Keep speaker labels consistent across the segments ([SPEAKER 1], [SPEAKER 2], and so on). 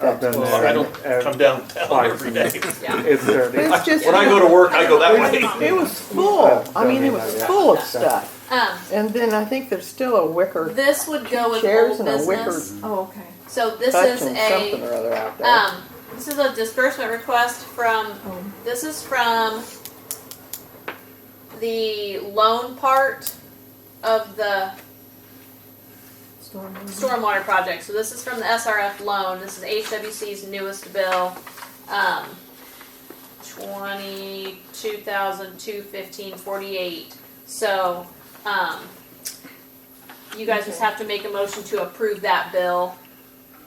[SPEAKER 1] I've been
[SPEAKER 2] Well,
[SPEAKER 1] there.
[SPEAKER 2] I don't
[SPEAKER 1] and-
[SPEAKER 2] come downtown every day.
[SPEAKER 1] It's dirty.
[SPEAKER 3] It's just,
[SPEAKER 2] When I go to work, I go that way.
[SPEAKER 3] it was full, I mean, it was full of stuff.
[SPEAKER 4] Um,
[SPEAKER 3] And then I think there's still a wicker,
[SPEAKER 4] this would go with
[SPEAKER 3] chairs
[SPEAKER 4] old
[SPEAKER 3] and a wicker
[SPEAKER 4] business.
[SPEAKER 5] Oh, okay.
[SPEAKER 4] So this
[SPEAKER 3] hutch
[SPEAKER 4] is
[SPEAKER 3] and something
[SPEAKER 4] a,
[SPEAKER 3] or other out there.
[SPEAKER 4] um, this is a disbursement request from,
[SPEAKER 5] Oh.
[SPEAKER 4] this is from the loan part of the
[SPEAKER 5] Storm.
[SPEAKER 4] stormwater project. So this is from the SRF loan. This is HWC's newest bill. Um, twenty-two thousand two fifteen forty-eight. So, um, you guys just have to make a motion to approve that bill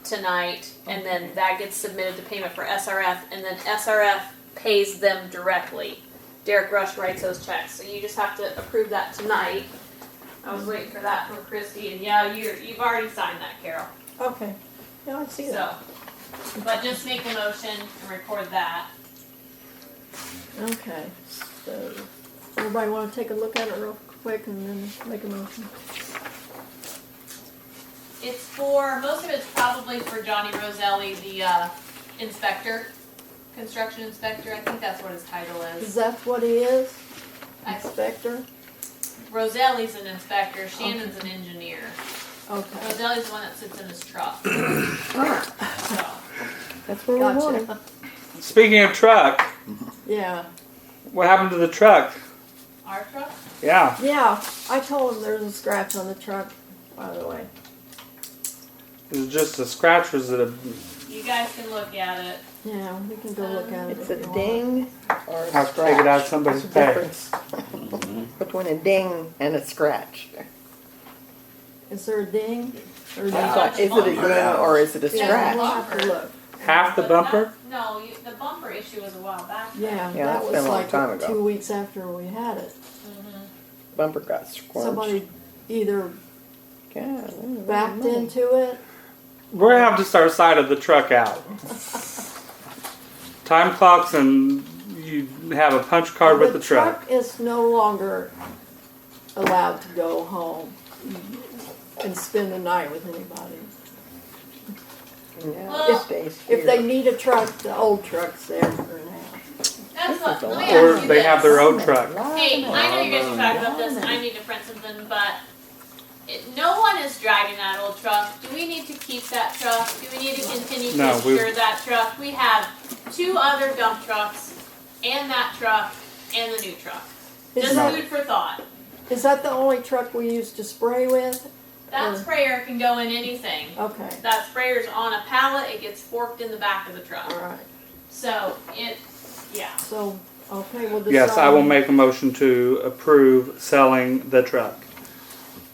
[SPEAKER 4] tonight, and then that gets submitted to payment for SRF, and then SRF pays them directly. Derek Rush writes those checks, so you just have to approve that tonight. I was waiting for that from Christie, and yeah, you you've already signed that, Carol.
[SPEAKER 5] Okay.
[SPEAKER 3] Yeah, I see that.
[SPEAKER 4] So, but just make a motion and record that.
[SPEAKER 5] Okay. So, everybody want to take a look at it real quick and then make a motion?
[SPEAKER 4] It's for most of it's probably for Johnny Roselli, the uh, inspector, construction inspector. I think that's what his title
[SPEAKER 5] Is
[SPEAKER 4] is.
[SPEAKER 5] that what he is?
[SPEAKER 4] I,
[SPEAKER 5] Inspector?
[SPEAKER 4] Roselli's an inspector. Shannon's an engineer.
[SPEAKER 5] Okay.
[SPEAKER 4] Roselli's the one that sits in his truck. So.
[SPEAKER 5] That's where we want him. Gotcha.
[SPEAKER 1] Speaking of truck,
[SPEAKER 5] Yeah.
[SPEAKER 1] what happened to the truck?
[SPEAKER 4] Our truck?
[SPEAKER 1] Yeah,
[SPEAKER 5] Yeah. I told him there's a scratch on the truck, by the way.
[SPEAKER 1] it was just a scratch. Was it a?
[SPEAKER 4] You guys can look at it.
[SPEAKER 5] Yeah, we can go look at it.
[SPEAKER 3] It's
[SPEAKER 5] if
[SPEAKER 3] a
[SPEAKER 5] you want.
[SPEAKER 3] ding or a
[SPEAKER 1] I figured out
[SPEAKER 3] scratch.
[SPEAKER 1] somebody's
[SPEAKER 3] There's a
[SPEAKER 1] pay.
[SPEAKER 3] difference between a ding and a scratch.
[SPEAKER 5] Is there a ding? Or a
[SPEAKER 3] That's
[SPEAKER 5] ding?
[SPEAKER 3] why, Uh, Is it a ding or is it a
[SPEAKER 5] Yeah, we'll
[SPEAKER 3] scratch?
[SPEAKER 5] have to look.
[SPEAKER 1] Half the
[SPEAKER 4] But
[SPEAKER 1] bumper.
[SPEAKER 4] that- No, you, the bumper issue was a while back.
[SPEAKER 5] Yeah,
[SPEAKER 3] Yeah,
[SPEAKER 5] that
[SPEAKER 3] that's been
[SPEAKER 5] was
[SPEAKER 3] a long
[SPEAKER 5] like
[SPEAKER 3] time ago.
[SPEAKER 5] two weeks after we had it.
[SPEAKER 3] Bumper got squirmed.
[SPEAKER 5] Somebody either
[SPEAKER 3] God, ooh,
[SPEAKER 5] backed
[SPEAKER 3] ooh.
[SPEAKER 5] into it.
[SPEAKER 1] We're gonna have to start side of the truck out. Time clocks and you have a punch card with the truck.
[SPEAKER 5] is no longer allowed to go home and spend the night with anybody.
[SPEAKER 3] No, it stays
[SPEAKER 5] If they
[SPEAKER 3] here.
[SPEAKER 5] need a truck, the old truck's there for now.
[SPEAKER 4] That's what, let me ask
[SPEAKER 1] Or
[SPEAKER 4] you
[SPEAKER 1] they have
[SPEAKER 4] this.
[SPEAKER 1] their own truck.
[SPEAKER 4] Hey, I know you guys are talking about this, and I need to print something, but it, no one is driving that old truck. Do we need to keep that truck? Do we need to continue to
[SPEAKER 1] No, we-
[SPEAKER 4] insure that truck? We have two other dump trucks, and that truck, and the new truck.
[SPEAKER 5] Is
[SPEAKER 4] Just
[SPEAKER 5] that,
[SPEAKER 4] food for thought.
[SPEAKER 5] is that the only truck we used to spray with?
[SPEAKER 4] That
[SPEAKER 5] Mm.
[SPEAKER 4] sprayer can go in anything.
[SPEAKER 5] Okay,
[SPEAKER 4] That sprayer's on a pallet, it gets forked in the back of the truck.
[SPEAKER 5] alright,
[SPEAKER 4] So, it, yeah.
[SPEAKER 5] so, okay, we'll decide.
[SPEAKER 1] Yes, I will make a motion to approve selling the truck,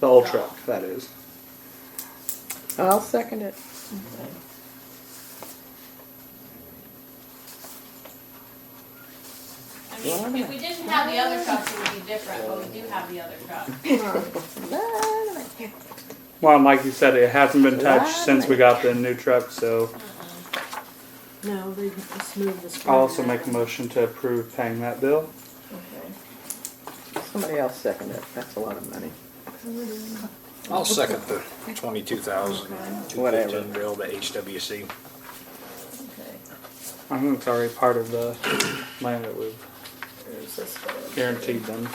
[SPEAKER 1] the old truck. That is.
[SPEAKER 3] I'll second it.
[SPEAKER 4] I mean, if we didn't have the
[SPEAKER 5] Mm.
[SPEAKER 4] other trucks, it would be different, but we do have the other truck.
[SPEAKER 5] Alright,
[SPEAKER 1] Well, and like you said, it hasn't been touched since we got the new truck, so
[SPEAKER 5] No, they just moved the sprayer.
[SPEAKER 1] I'll also make a motion to approve paying that bill.
[SPEAKER 5] Okay.
[SPEAKER 3] Somebody else second it. That's a lot of money.
[SPEAKER 6] I'll second the twenty-two thousand, two
[SPEAKER 3] Whatever.
[SPEAKER 6] fifteen bill, the HWC.
[SPEAKER 5] Okay,
[SPEAKER 1] I think it's already part of the land that we've
[SPEAKER 5] there's this bill.
[SPEAKER 1] guaranteed them.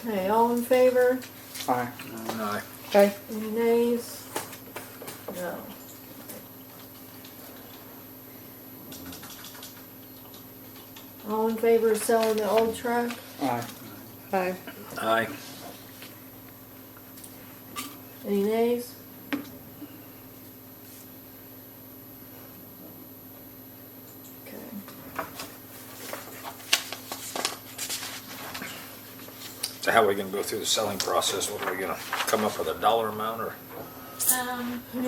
[SPEAKER 5] Okay, all in favor?
[SPEAKER 1] Aye.
[SPEAKER 6] Aye.
[SPEAKER 3] Okay,
[SPEAKER 5] Any nays? No. All in favor of selling the old truck?
[SPEAKER 1] Aye.
[SPEAKER 3] aye.
[SPEAKER 6] Aye.
[SPEAKER 5] Any nays? Okay.
[SPEAKER 6] So how are we gonna go through the selling process? What are we gonna come up with a dollar amount or?
[SPEAKER 4] Um,